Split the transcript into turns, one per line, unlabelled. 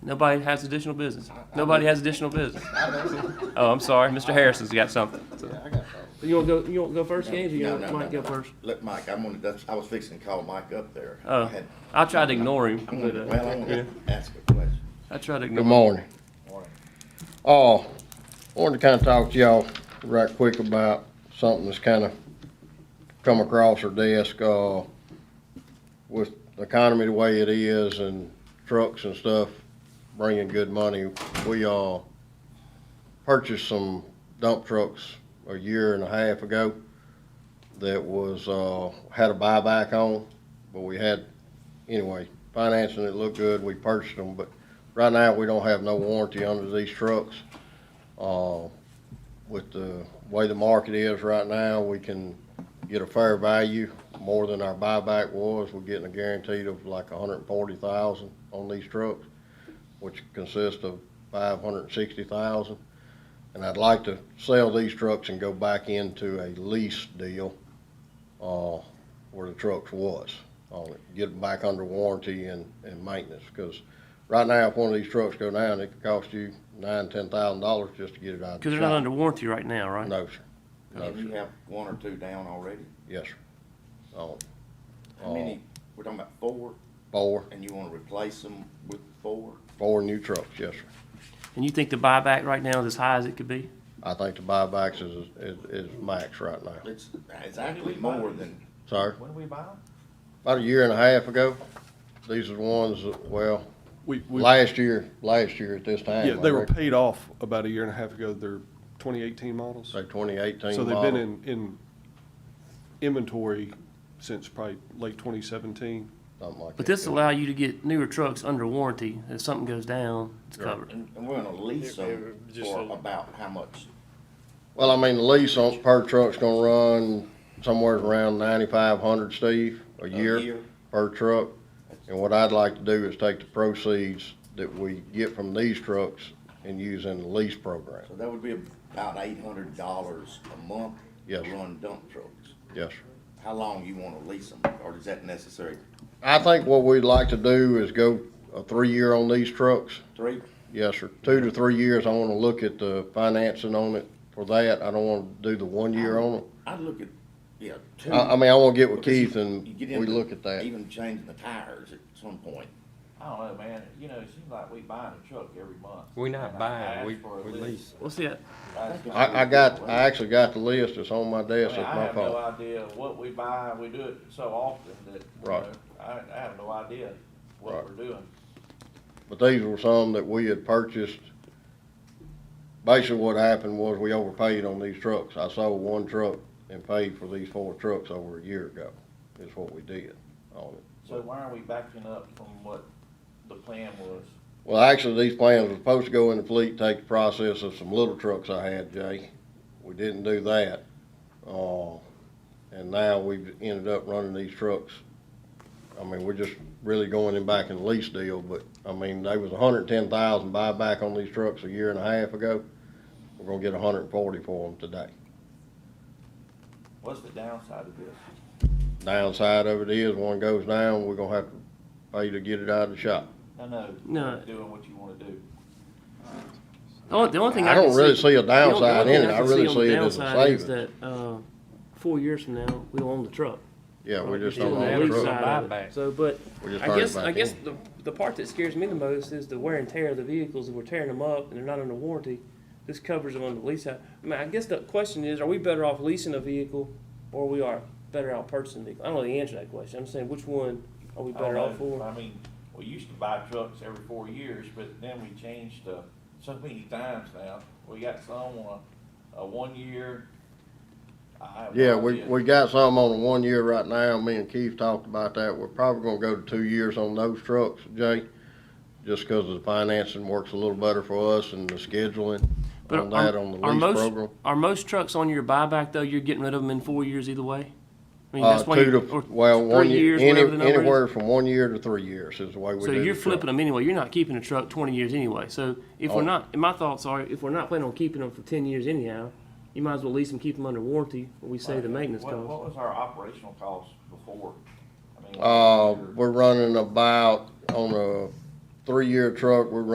Nobody has additional business. Nobody has additional business. Oh, I'm sorry, Mr. Harrison's got something.
Yeah, I got that.
You wanna go, you wanna go first, James, or you
No,
want
no,
Mike
no.
go first?
Look, Mike, I'm gonna, that's, I was fixing to call Mike up there. I
Oh,
had-
I tried to ignore him,
I'm
but,
gonna, well, I'm
uh, yeah,
gonna ask a question.
I tried to ignore
Good
him.
morning.
Morning.
Oh, wanted to kinda talk to y'all right quick about something that's kinda come across our desk, uh, with the economy the way it is and trucks and stuff bringing good money, we, uh, purchased some dump trucks a year and a half ago that was, uh, had a buyback on, but we had, anyway, financing it looked good, we purchased them, but Right now, we don't have no warranty under these trucks. Uh, with the way the market is right now, we can get a fair value, more than our buyback was. We're getting a guaranteed of like a hundred and forty thousand on these trucks, which consists of five hundred and sixty thousand. And I'd like to sell these trucks and go back into a lease deal, uh, where the trucks was. Uh, get them back under warranty and, and maintenance, cause right now, if one of these trucks go down, it could cost you nine, ten thousand dollars just to get it out. of the
Cause they're not
shop.
under warranty right now, right?
No, sir. No,
And you
sir.
have one or two down already?
Yes, sir. Oh,
How many, we're talking about four,
four,
and you wanna replace them with four?
four new trucks, yes, sir.
And you think the buyback right now is as high as it could be?
I think the buybacks is, is, is max right now.
It's, it's actually more than,
Sorry,
When do we buy them?
about a year and a half ago, these are the ones, that- well,
We, we,
last year, last year at this time.
yeah,
I
they were
reckon,
paid off about a year and a half ago, They're 2018 models.
Say twenty eighteen
So they've
model.
been in, in inventory since probably late 2017.
something like
But
that.
this allow you to get newer trucks under warranty. If something goes down, it's covered.
and, and we're gonna lease them for about how much?
Well, I mean, the lease on per truck's gonna run somewhere around ninety-five hundred, Steve, a
year.
year per truck. And what I'd like to do is take the proceeds that we get from these trucks and use in the lease program.
So that would be about eight hundred dollars a month to
Yes, sir.
run dump trucks.
Yes, sir.
How long you wanna lease them, or is that necessary?
I think what we'd like to do is go a three-year on these trucks.
Three?
Yes, sir. Two to three years, I wanna look at the financing on it for that. I don't wanna do the one year on it.
I'd look at, yeah, two.
I, I mean, I wanna get with
Because you-
Keith and
you get
we
into
look at that.
Even changing the tires at some point.
I don't know, man, you know, it seems like we buying a truck every month.
We
And
not
I
buying,
ask
we,
for a
we lease.
What's that?
Ask for-
I, I got, I actually got the list. It's on my desk. It's
I
my
have no
phone.
idea what we buy, we do it so often that, you
Right.
know, I, I have no idea
Right.
what we're doing.
But these were some that we had purchased. Basically, what happened was we overpaid on these trucks. I sold one truck and paid for these four trucks over a year ago, is what we did on it.
So why are we backing up from what the plan was?
Well, actually, these plans were supposed to go in the fleet, take the process of some little trucks I had, Jay. We didn't do that. Uh, and now we've ended up running these trucks. I mean, we're just really going in back in the lease deal, but, I mean, they was a hundred and ten thousand buyback on these trucks a year and a half ago. We're gonna get a hundred and forty for them today.
What's the downside of this?
Downside of it is, one goes down, we're gonna have to pay to get it out of the shop.
No, no.
No.
Doing what you wanna do.
The only, the only thing I
I
can
don't really see
the only-
a
the
downside
only
in
thing
it. I
can
really
on the
see it as a
downside is
savings.
That, uh, four years from now, we'll own the truck.
Yeah, we
We're
just
still
don't
on
own
the
the
lease
truck.
side of it.
Buyback.
So, but
We just
I
hired
guess,
back
I guess
in.
the, the part that scares me the most is the wear and tear of the vehicles. If we're tearing them up and they're not under warranty, this covers them under the lease out. I mean, I guess the question is, are we better off leasing a vehicle or we are better off purchasing a vehicle? I don't know the answer to that question. I'm saying which one are we
I don't
better off
know.
for?
I mean, we used to buy trucks every four years, but then we changed, uh, so many times now. We got some on a, a one year. I have no
Yeah, we,
idea.
we got some on the one year right now, me and Keith talked about that, we're probably gonna go to two years on those trucks, Jay. Just cause the financing works a little better for us and the scheduling
But
on
are-
that, on the
are
lease
most-
program.
Are most trucks on your buyback though? You're getting rid of them in four years either way. I mean,
Uh,
that's why
two
you-
to,
or
well, one
three
year,
years,
any,
whatever the number is.
anywhere from one year to three years is the way we do
So
the
you're
truck.
flipping them anyway. You're not keeping a truck 20 years anyway. So if we're
Oh.
not, my thoughts are, if we're not planning on keeping them for 10 years anyhow, you might as well lease them, keep them under warranty, when we save the maintenance
What- What
cost.
was our operational cost before? I mean, what
Uh,
was your-
we're running about, on a three-year truck, we're